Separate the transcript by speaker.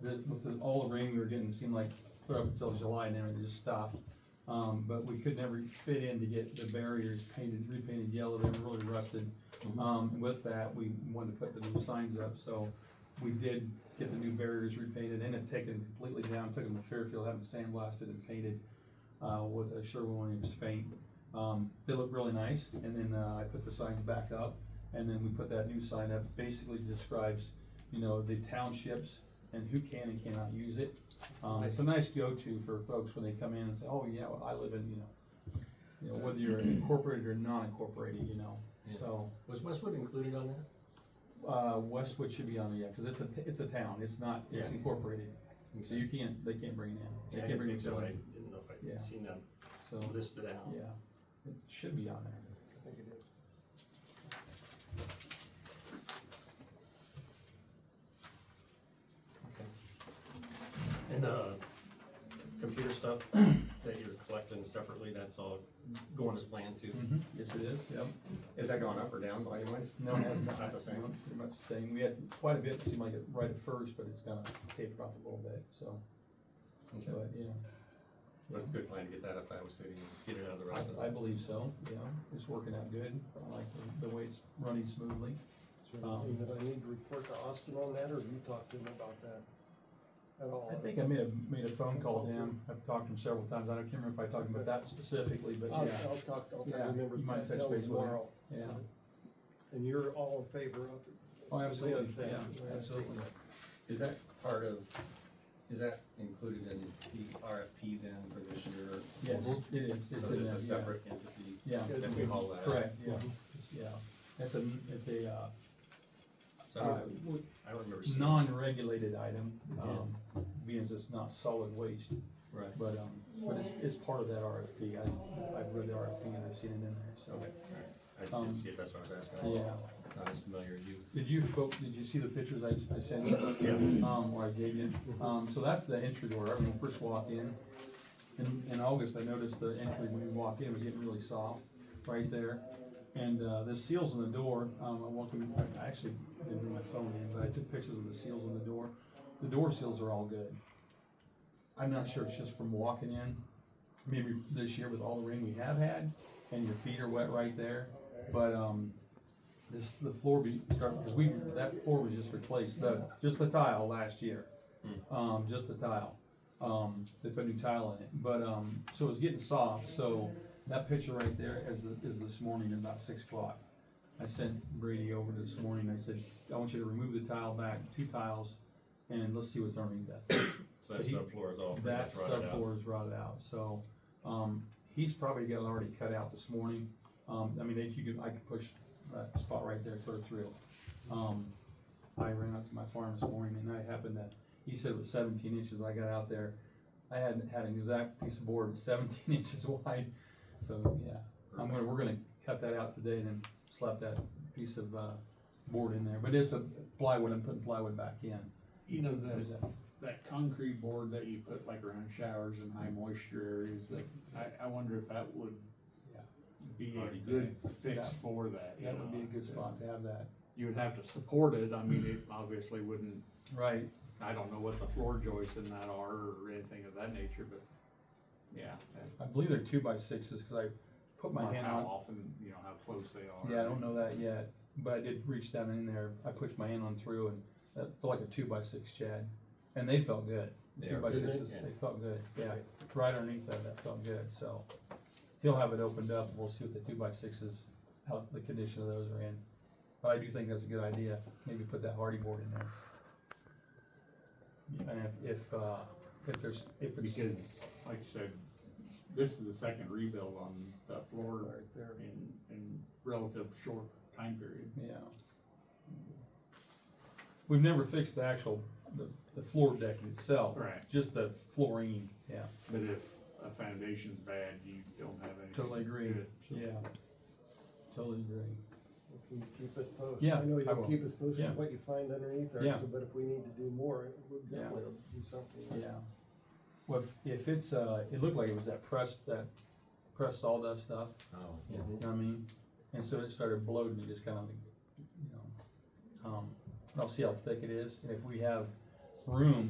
Speaker 1: the, with the, all the rain we were getting, it seemed like clear up until July and everything just stopped. Um, but we could never fit in to get the barriers painted, repainted yellow, they were really rusted. Um, and with that, we wanted to put the new signs up, so we did get the new barriers repainted and have taken them completely down, took them to Fairfield, had them sandblasted and painted, uh, with a Sherwin-Williams paint. Um, they look really nice, and then, uh, I put the signs back up, and then we put that new sign up, basically describes, you know, the townships and who can and cannot use it. Um, it's a nice go-to for folks when they come in and say, oh, yeah, well, I live in, you know, you know, whether you're incorporated or non-incorporated, you know, so.
Speaker 2: Was Westwood included on that?
Speaker 1: Uh, Westwood should be on it, yeah, cause it's a, t- it's a town, it's not, it's
Speaker 2: Yeah.
Speaker 1: incorporated, so you can't, they can't bring it in.
Speaker 2: Yeah,
Speaker 1: They
Speaker 2: I
Speaker 1: can't
Speaker 2: didn't
Speaker 1: bring
Speaker 2: think
Speaker 1: it
Speaker 2: so, I
Speaker 1: in.
Speaker 2: didn't know if
Speaker 1: Yeah.
Speaker 2: I'd seen them
Speaker 1: So,
Speaker 2: listed out.
Speaker 1: yeah, it should be on there.
Speaker 3: I think it is.
Speaker 2: And the computer stuff that you're collecting separately, that's all going as planned too?
Speaker 1: Yes, it is, yep.
Speaker 2: Is that going up or down volume wise?
Speaker 1: No, it has not.
Speaker 2: Not the same.
Speaker 1: No, Pretty much the same. We had quite a bit, seemed like it right at first, but it's kind of tapered off a little bit, so,
Speaker 2: Okay.
Speaker 1: but, yeah.
Speaker 2: But it's a good plan to get that up to Iowa City and get it out of the rock.
Speaker 1: I, I believe so, yeah. It's working out good. I like the, the way it's running smoothly.
Speaker 3: Is there anything that I need to report to Austin on that, or have you talked to him about that at all?
Speaker 1: I think I made a, made a phone call to him. I've talked to him several times. I don't, can't remember if I talked about that specifically, but
Speaker 2: Oh,
Speaker 3: I'll,
Speaker 1: yeah,
Speaker 3: I'll talk, I'll
Speaker 1: uh,
Speaker 3: try
Speaker 1: Yeah,
Speaker 3: to remember
Speaker 1: you might
Speaker 3: that
Speaker 1: touch base with him.
Speaker 3: tomorrow.
Speaker 1: yeah.
Speaker 3: And you're all in favor of it?
Speaker 1: Oh, absolutely,
Speaker 3: Thank
Speaker 1: yeah,
Speaker 3: you.
Speaker 1: absolutely.
Speaker 2: Is that part of, is that included in the RFP then for this year?
Speaker 1: Yes, it is. It's in
Speaker 2: So it's
Speaker 1: there, yeah.
Speaker 2: a separate Mm-hmm. entity
Speaker 1: Yeah,
Speaker 2: that we haul that out?
Speaker 1: correct, yeah, yeah. It's a, it's a, uh,
Speaker 2: So I don't-
Speaker 1: uh,
Speaker 2: I don't remember seeing.
Speaker 1: non-regulated item, um, being as it's not solid waste,
Speaker 2: Right,
Speaker 1: but, um, but it's, it's part of that RFP. I, I've read the RFP and I've seen it in there, so.
Speaker 2: okay, alright. I just didn't see it, that's what I was asking.
Speaker 1: um, Yeah.
Speaker 2: Not as familiar as you.
Speaker 1: Did you, fo- did you see the pictures I, I sent you? Um, or I gave you? Um, so that's the entry door, right when we first walk in. In, in August, I noticed the entry when we walk in was getting really soft, right there. And, uh, the seals on the door, um, I welcome, I actually didn't bring my phone in, but I took pictures of the seals on the door. The door seals are all good. I'm not sure it's just from walking in, maybe this year with all the rain we have had, and your feet are wet right there. But, um, this, the floor be, because we, that floor was just replaced, the, just the tile last year. Um, just the tile. Um, they put new tile in it, but, um, so it's getting soft, so that picture right there is, is this morning at about six o'clock. I sent Brady over this morning, I said, I want you to remove the tile back, two tiles, and let's see what's underneath that.
Speaker 2: So that
Speaker 1: He-
Speaker 2: subfloor is all pretty much
Speaker 1: That
Speaker 2: Oh, rotted out.
Speaker 1: subfloor is rotted out, so, um, he's probably got it already cut out this morning. Um, I mean, if you could, I could push that spot right there clear through. Um, I ran up to my farm this morning and I happened to, he said it was seventeen inches, I got out there. I had, had an exact piece of board seventeen inches wide, so, yeah. I'm gonna, we're gonna cut that out today and then slap that piece of, uh, board in there, but it's a plywood, I'm putting plywood back in.
Speaker 4: You know,
Speaker 1: There's
Speaker 4: the,
Speaker 1: that-
Speaker 4: that concrete board that you put like around showers and high moisture areas, that, I, I wonder if that would
Speaker 1: Yeah.
Speaker 4: be
Speaker 2: Already
Speaker 4: a good fix
Speaker 1: That-
Speaker 4: for that, you
Speaker 1: That would be a
Speaker 4: know?
Speaker 1: good spot to have that.
Speaker 4: You would have to support it, I mean, it obviously wouldn't,
Speaker 1: Right,
Speaker 4: I don't know what the floor joists in that are or anything of that nature, but, yeah. that-
Speaker 1: I believe they're two by sixes because I put my
Speaker 4: or
Speaker 1: hand
Speaker 4: How
Speaker 1: on.
Speaker 4: often, you know, how close they are.
Speaker 1: Yeah, I don't know that yet, but I did reach down in there. I pushed my hand on through and that felt like a two by six, Chad, and they felt good.
Speaker 2: They
Speaker 1: two
Speaker 2: are
Speaker 1: by
Speaker 3: good,
Speaker 1: sixes,
Speaker 2: yeah.
Speaker 1: they felt good. Yeah, right underneath that, that felt good. So he'll have it opened up. We'll see what the two by sixes, how the condition of those are in. But I do think that's a good idea. Maybe put that hardy board in there. And if if uh, if there's if it's
Speaker 4: Because, like I said, this is the second rebuild on that floor
Speaker 3: Right there.
Speaker 4: in, in relative short time period.
Speaker 1: Yeah. We've never fixed the actual, the, the floor deck itself.
Speaker 4: Right.
Speaker 1: Just the flooring, yeah.
Speaker 4: But if a foundation's bad, you don't have any.
Speaker 1: Totally agree. Yeah. Totally agree.
Speaker 3: Well, Can you keep us posted?
Speaker 1: Yeah,
Speaker 3: I know
Speaker 1: I will.
Speaker 3: you'll keep us posted
Speaker 1: Yeah.
Speaker 3: on what you find underneath there,
Speaker 1: Yeah.
Speaker 3: so- but if we need to do more, we'll
Speaker 1: Yeah.
Speaker 3: definitely do something.
Speaker 1: Yeah. Well, if, if it's, uh, it looked like it was that pressed, that pressed sawdust stuff,
Speaker 2: Oh,
Speaker 1: you know what I mean? And so it started bloating, it just kind of, you know, um, I'll see how thick it is, and if we have room